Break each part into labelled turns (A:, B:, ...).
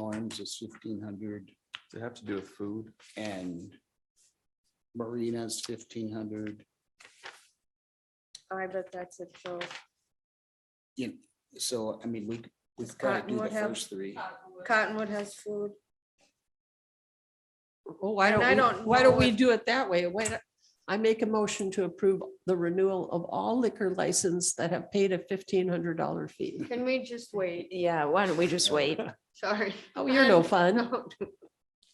A: Cruise is fifteen hundred
B: Does it have to do with food?
A: and Marina's fifteen hundred.
C: I bet that's a joke.
A: So, I mean, we,
C: Does
A: we've got to do the
C: Cottonwood have-
A: first three.
C: Cottonwood has food.
D: Well, Oh, why
C: And I
D: don't, we-
C: don't
D: why
C: know
D: don't we
C: if-
D: do it that way? Wait, I make a motion to approve the renewal of all liquor license that have paid a fifteen hundred dollar fee.
C: Can we just wait?
E: Yeah, why don't we just wait?
C: Sorry.
D: Oh, you're no
C: I'm-
D: fun.
C: No.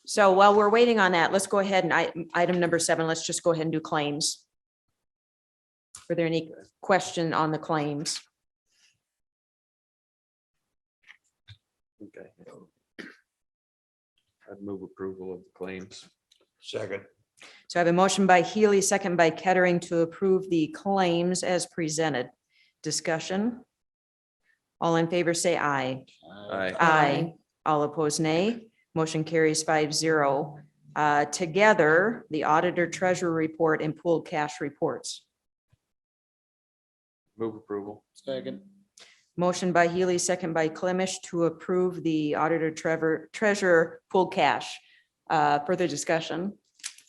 E: So while we're waiting on that, let's go ahead and I, item number seven, let's just go ahead and do claims. Were there any question on the claims?
B: Okay. I'd move approval of the claims.
F: Second.
E: So I have a motion by Healy, second by Kettering to approve the claims as presented. Discussion? All in favor, say aye.
B: Aye.
E: Aye. All opposed, nay. Motion carries five zero. Uh, together, the auditor treasurer report and pooled cash reports.
B: Move approval.
A: Second.
E: Motion by Healy, second by Clemish to approve the auditor Trevor treasurer pooled cash. Uh, further discussion?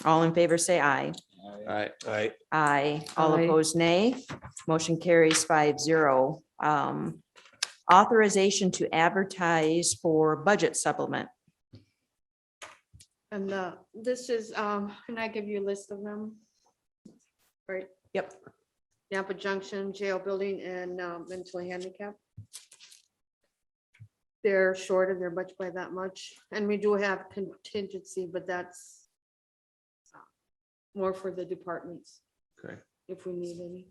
E: All in favor, say aye.
A: Aye.
B: Aye.
F: Aye.
E: Aye. All
D: Aye.
E: opposed, nay. Motion carries five zero. Um, authorization to advertise for budget supplement.
C: And uh, this is, um, can I give you a list of them? Right?
E: Yep.
C: Napa Junction Jail Building and um, mentally handicapped. They're short of their budget by that much, and we do have contingency, but that's uh, more for the departments
B: Okay.
C: if we need any.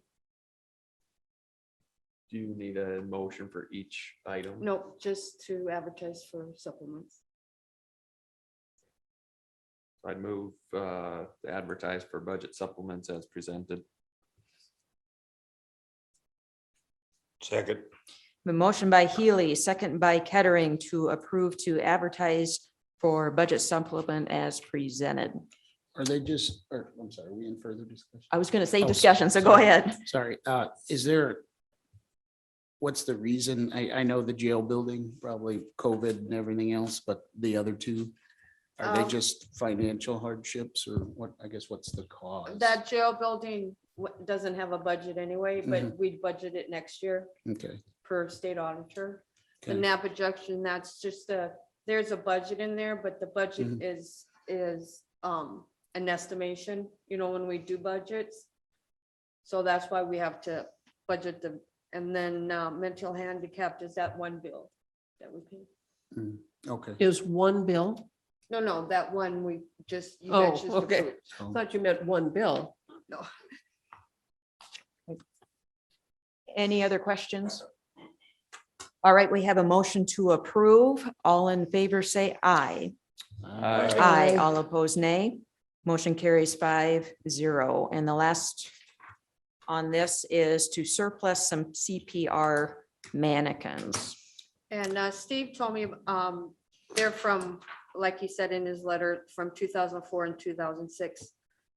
B: Do you need a motion for each item?
C: Nope, just to advertise for supplements.
B: I'd move uh, to advertise for budget supplements as presented.
F: Second.
E: A motion by Healy, second by Kettering to approve to advertise for budget supplement as presented.
A: Are they just, or, I'm sorry, are we in further discussion?
E: I was going to say
A: Oh,
E: discussion, so go
A: sorry.
E: ahead.
A: Sorry, uh, is there? What's the reason? I, I know the jail building, probably COVID and everything else, but the other two? Are they
C: Um,
A: just financial hardships or what, I guess, what's the cause?
C: That jail building w- doesn't have a budget anyway, but
D: Mm-hmm.
A: Mhm.
C: we'd budget it next year
A: Okay.
C: per state auditor. The
A: okay.
C: Napa Junction, that's just a, there's a budget in there, but the budget
D: Mm-hmm.
A: Mhm.
C: is, is um, an estimation, you know, when we do budgets. So that's why we have to budget them. And then uh, mental handicapped is that one bill that we pay.
A: Okay.
D: Is one bill?
C: No, no, that one we just. you guys
D: Oh,
C: just
D: okay.
C: approved.
A: so-
D: Thought you meant one bill.
E: Any other questions? All right, we have a motion to approve. All in favor, say aye.
B: Aye.
E: Aye,
D: Aye.
E: all opposed, nay. Motion carries five zero. And the last on this is to surplus some CPR mannequins.
C: And uh, Steve told me, um, they're from, like he said in his letter, from two thousand four and two thousand six.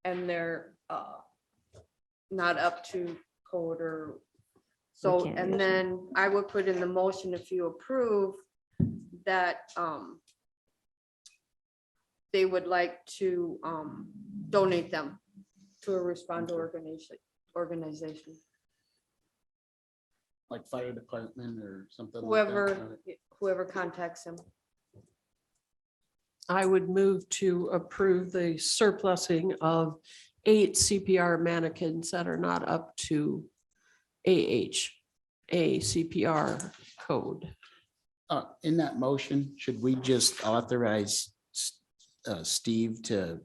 C: And they're, uh, not up to code or, so,
E: can't
C: and
E: use
C: then I would put in the motion if you approve that, um, they would like to, um, donate them to a responder organization, organization,
A: Like fire department or something. like that,
C: whoever, whoever contacts them.
D: I would move to approve the surplusing of eight CPR mannequins that are not up to AH, a CPR code.
A: Uh, in that motion, should we just authorize S- uh, Steve to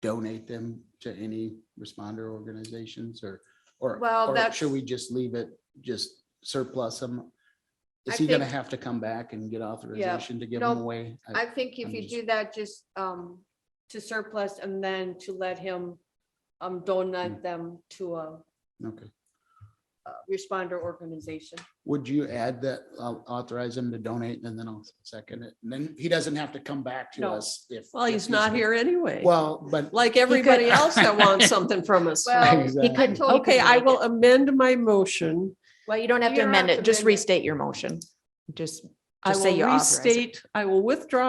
A: donate them to any responder organizations or, or?
C: Well,
A: or
C: that's-
A: Should we just leave it, just surplus them?
C: I
A: Is he gonna
C: think-
A: have to come back and get authorization to give them
C: nope,
A: away? I-
C: I think if
A: I'm
C: you
A: just-
C: do that, just um to surplus and then to let him um
A: Hmm.
C: donate them to a
A: Okay.
C: a responder organization.
A: Would you add that, uh, authorize him to donate and then I'll second it? And then he doesn't have to come back to
C: No.
A: us if.
D: Well,
A: if
D: he's not here anyway,
A: Well, but.
D: like everybody else that wants something from us.
C: Well,
A: Exactly.
C: I told
D: Okay,
C: him
D: I
C: like
D: will
C: it.
D: amend my motion.
E: Well, you don't have
C: You
E: to
C: don't
E: amend
C: have
E: it.
C: to
E: Just
C: amend it.
E: restate your motion. Just,
D: I
E: just say
D: will
E: you authorize it.
D: restate, I will withdraw